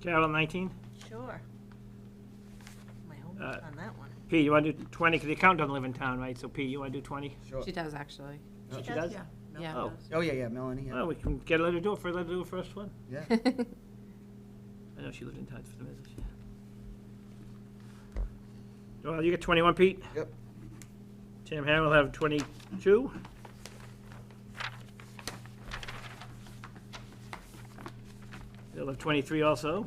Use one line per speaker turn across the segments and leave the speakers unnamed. Carol, 19?
Sure. My homework
Uh,
on that one.
Pete, you want to do 20, because the account doesn't live in town, right? So Pete, you want to do 20?
Sure.
She does, actually.
She does?
Yeah.
Yeah.
Oh.
Oh, yeah, yeah, Melanie, yeah.
Well, we can get her to do it, for let her do it first one.
yeah.
Oh,
I know she lived in town for the business, yeah. Well, you get 21, Pete?
Yep.
Tim Ham will have 22. They'll have 23 also,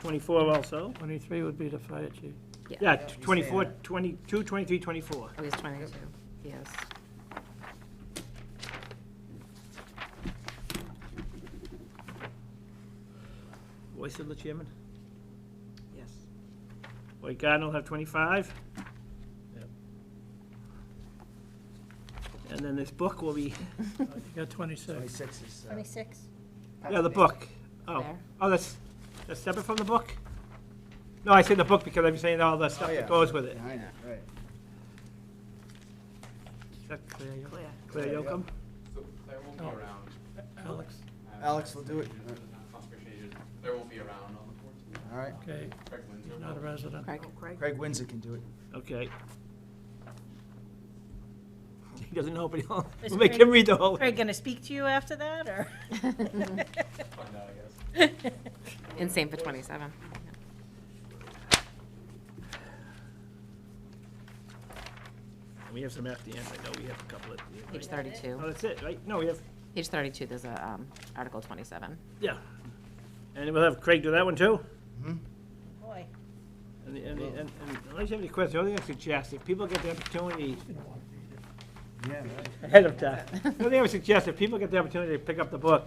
24 also.
23 would be the fire chief.
Yeah,
he's saying
24,
that.
22, 23, 24.
Oh, he's 22. Yes.
Voice of the chairman.
Yes.
White Garden will have 25. And then this book will be,
You got 26.
Twenty-six is, uh,
Twenty-six.
yeah, the book. Oh,
There.
oh, that's, that's separate from the book? No, I say the book because I'm saying all the
oh,
stuff
yeah,
that goes with it.
Behind it, right.
Is that Claire Yo-
Clear.
Claire
Claire,
Yocum?
So Claire won't be
Oh.
around.
Alex,
Um,
Alex will do it.
Conservation agent. Claire won't be around on the fourteenth.
All right.
okay,
Craig Windsor will.
he's not a resident.
Craig.
Oh, Craig.
Craig Windsor can do it.
Okay. He doesn't know, but he'll,
Is
we'll make
Craig-
him read the whole.
Craig gonna speak to you after that, or?
Find out, I guess.
And same for 27.
We have some at the end, I know we have a couple at the end.
Page
right? Oh,
32.
that's it, right? No, we have,
Page 32, there's a, um, Article 27.
yeah. And we'll have Craig do that one too?
Mm-hmm.
Boy,
And, and, and and unless you have any questions, the only thing I suggest, if people get the opportunity
Yeah, right.
ahead of time, the only thing I would suggest, if people get the opportunity to pick up the book,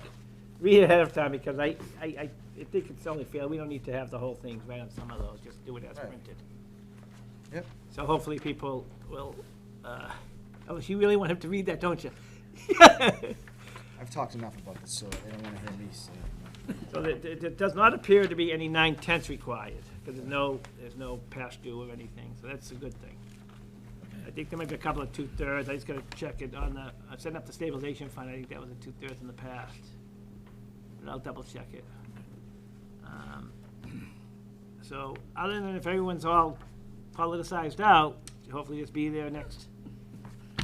read it ahead of time, because I, I, I I think it's only fair, we don't need to have the whole thing right on some of those, just do it as
Right.
printed.
Yep.
So hopefully people will, uh, unless you really want him to read that, don't you?
I've talked enough about this, so they don't want to hear me say it.
So there, there there does not appear to be any nine tenths required, because there's no, there's no past due or anything, so that's a good thing. I think there might be a couple of two-thirds, I just gotta check it on the, I set up the stabilization fund, I think that was a two-thirds in the past. But I'll double check it. Um, So, other than if everyone's all politicized out, hopefully just be there next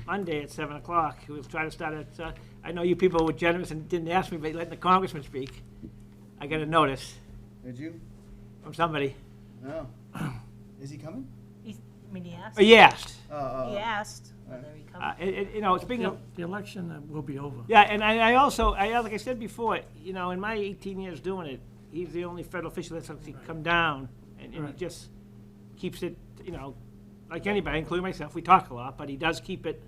Monday at seven o'clock. We'll try to start at, uh, I know you people were generous and didn't ask me, but letting the congressman speak. I got a notice
Did you?
from somebody.
No. Is he coming?
he's, I mean, he asked,
Oh,
he
you asked.
Oh, oh, oh.
asked whether he
Uh,
comes.
it, it, you know, speaking
The
of,
the election uh, will be over.
yeah, and I, I also, I, uh, like I said before, you know, in my eighteen years doing it, he's the only federal official that's actually come down and, and he
Right.
just keeps it, you know, like anybody, including myself, we talk a lot, but he does keep it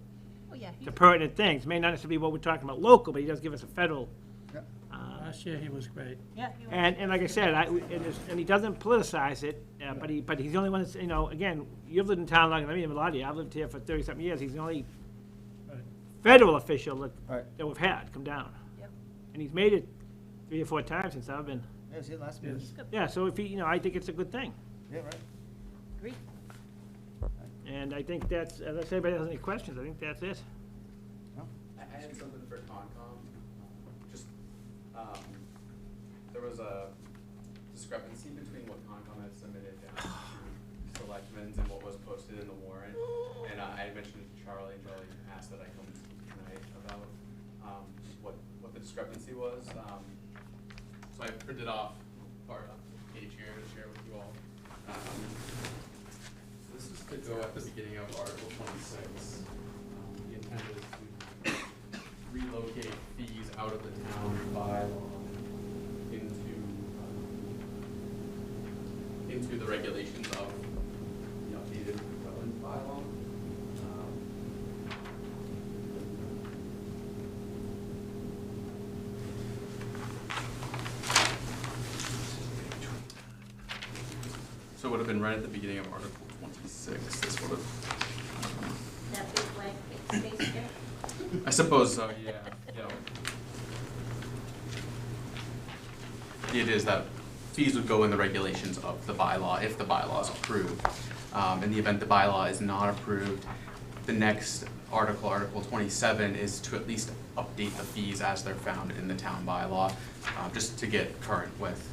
Oh, yeah, he-
to pertinent things. May not necessarily be what we're talking about local, but he does give us a federal.
Yep.
uh,
Last year, he was great.
yeah. he was-
And, and like I said, I, and it's- and he doesn't politicize it, uh, but he, but he's the only one that's, you know, again, you've lived in town longer than me, and a lot of you, I've lived here for thirty-something years, he's the only
Right.
federal official that,
Right.
that we've had come down.
Yep.
And he's made it three or four times since I've been,
Yeah, was it last meeting?
Yes.
yeah, so if he, you know, I think it's a good thing.
Yeah, right.
Agree.
And I think that's, unless anybody has any questions, I think that's it.
I I had something for Concom, just, um, there was a discrepancy between what Concom had submitted down to selectmen's and what was posted in the warrant. And I I had mentioned to Charlie, and Charlie asked that I come tonight about, um, what, what the discrepancy was. Um, So I printed off part of the page here to share with you all. Um, so This is to go at the beginning of Article twenty-six. Um, The intent is to relocate fees out of the town bylaw into, um, into the regulations of the updated wetland bylaw. Um, So it would have been right at the beginning of Article twenty-six, this would have, um,
that big blank space there.
I suppose so, yeah, yeah. It is that fees would go in the regulations of the bylaw if the bylaw is approved. Um, in the event the bylaw is not approved, the next article, Article twenty-seven, is to at least update the fees as they're found in the town bylaw, uh, just to get current with